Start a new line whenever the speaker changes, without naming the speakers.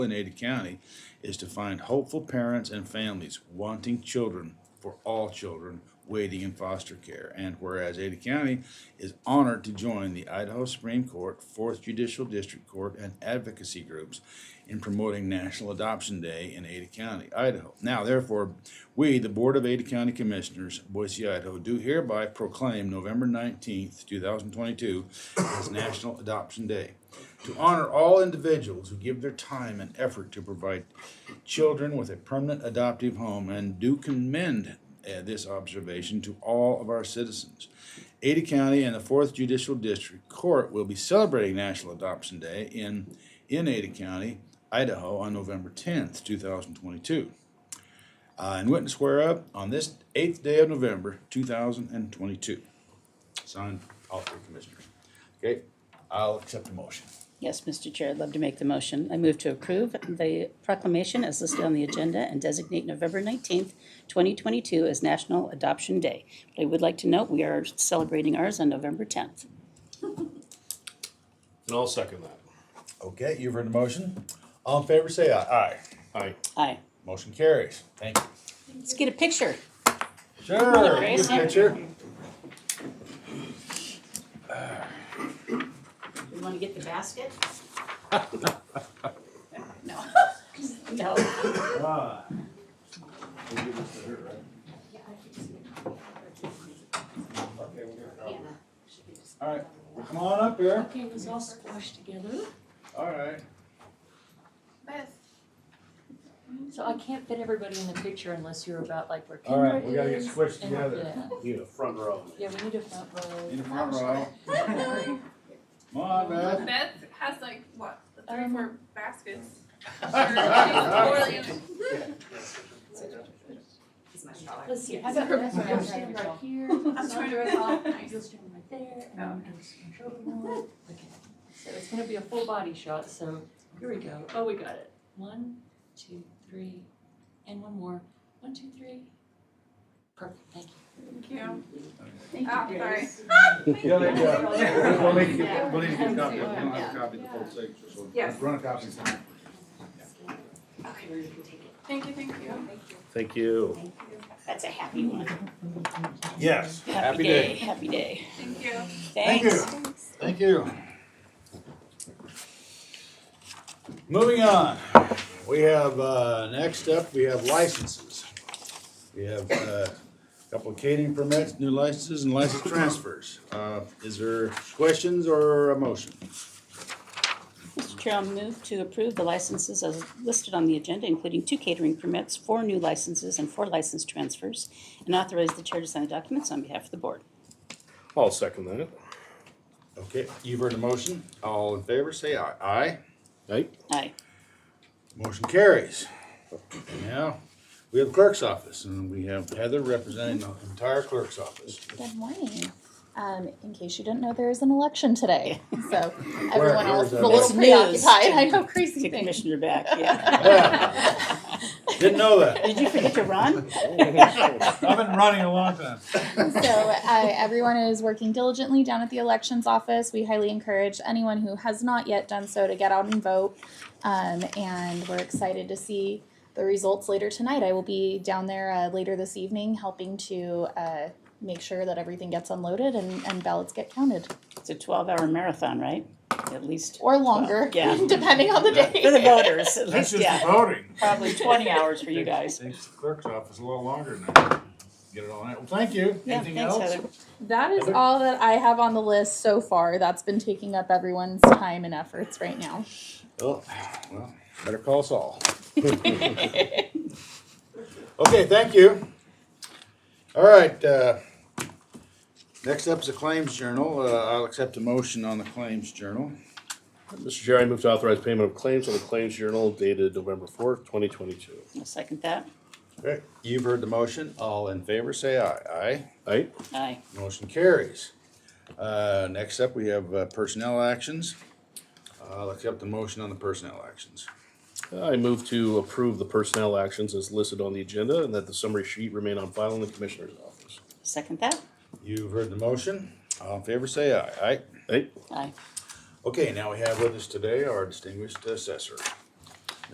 in Ada County is to find hopeful parents and families wanting children for all children waiting in foster care. And whereas Ada County is honored to join the Idaho Supreme Court, Fourth Judicial District Court, and advocacy groups in promoting National Adoption Day in Ada County, Idaho. Now, therefore, we, the Board of Ada County Commissioners, Boise, Idaho, do hereby proclaim November 19th, 2022 as National Adoption Day to honor all individuals who give their time and effort to provide children with a permanent adoptive home and do commend uh, this observation to all of our citizens. Ada County and the Fourth Judicial District Court will be celebrating National Adoption Day in, in Ada County, Idaho on November 10th, 2022. Uh, in witness whereof, on this eighth day of November, 2022. Signed, all three commissioners. Okay, I'll accept the motion.
Yes, Mr. Chair, I'd love to make the motion. I move to approve the proclamation as listed on the agenda and designate November 19th, 2022 as National Adoption Day. But I would like to note, we are celebrating ours on November 10th.
And I'll second that.
Okay, you've heard the motion. All in favor, say aye. Aye.
Aye.
Aye.
Motion carries. Thank you.
Let's get a picture.
Sure.
Grace.
Good picture.
You want to get the basket? No. No.
All right, come on up here.
Okay, it was all squashed together,
All right.
Beth,
so I can't fit everybody in the picture unless you're about like where
All
Kendra
right,
is.
we gotta get squished
and like
together.
that.
You the front row.
Yeah, we need a front row.
In the front row. Come on, man.
Beth has like what three or
Um,
four baskets. Or she's poorly-
Let's see, how about this one, I'll stand right here. Oh,
I'm trying to recall.
You'll stand right there, and I'm gonna scoot over more. Okay, so it's gonna be a full body shot, so here we go, oh, we got it. One, two, three, and one more, one, two, three. Perfect, thank you.
Thank you.
Thank
Ah,
you,
sorry.
Grace.
Yeah, there you go. We'll need to get, we'll need to get a copy.
Yeah.
We'll have a copy of the full signature, so
Yes.
run a copy. sometime.
Thank you, thank you.
Thank you.
That's a happy one.
Yes. Happy
day.
day.
Happy day.
Thank you.
Thank
Thanks.
you. Thank you. Moving on, we have, uh, next up, we have licenses. We have, uh, a couple of catering permits, new licenses and license transfers. Uh, is there questions or a motion?
Mr. Chair, I'll move to approve the licenses as listed on the agenda, including two catering permits, four new licenses, and four license transfers, and authorize the chair to sign the documents on behalf of the board.
I'll second that.
Okay, you've heard the motion. All in favor, say aye. Aye.
Aye.
Aye.
Motion carries. Now, we have clerk's office and we have Heather representing the entire clerk's office.
Good morning. Um, in case you didn't know, there is an election today, so
Where-
everyone
where's
else is a
that?
little
It's news.
preoccupied. I know crazy
Take
things.
Commissioner back, yeah.
Didn't know that.
Did you forget to run?
I've been running a long time.
So uh, everyone is working diligently down at the elections office. We highly encourage anyone who has not yet done so to get out and vote. Um, and we're excited to see the results later tonight. I will be down there uh, later this evening, helping to uh, make sure that everything gets unloaded and, and ballots get counted
It's a twelve-hour marathon, right? At least.
or longer,
yeah.
depending on the day.
For the voters, at
That's just
least,
the
yeah.
voting.
Probably twenty hours for you guys.
Takes the clerk's office a little longer than that. Get it all out. Well, thank you.
Yeah,
Anything
thanks,
else?
Heather.
That is
Heather?
all that I have on the list so far. That's been taking up everyone's time and efforts right now.
Oh, well, better call Saul. Okay, thank you. All right, uh, next up is the claims journal. Uh, I'll accept a motion on the claims journal.
Mr. Chair, I move to authorize payment of claims on the Claims Journal dated November fourth, twenty twenty-two.
I'll second that.
Okay, You've heard the motion. All in favor, say aye. Aye.
Aye.
Aye.
Motion carries. Uh, Next up, we have uh, personnel actions. I'll accept the motion on the personnel actions.
I move to approve the personnel actions as listed on the agenda and that the summary sheet remain on file in the Commissioner's office.
Second that.
You've heard the motion. All in favor, say aye. Aye.
Aye.
Aye.
Okay, now we have with us today our distinguished assessor.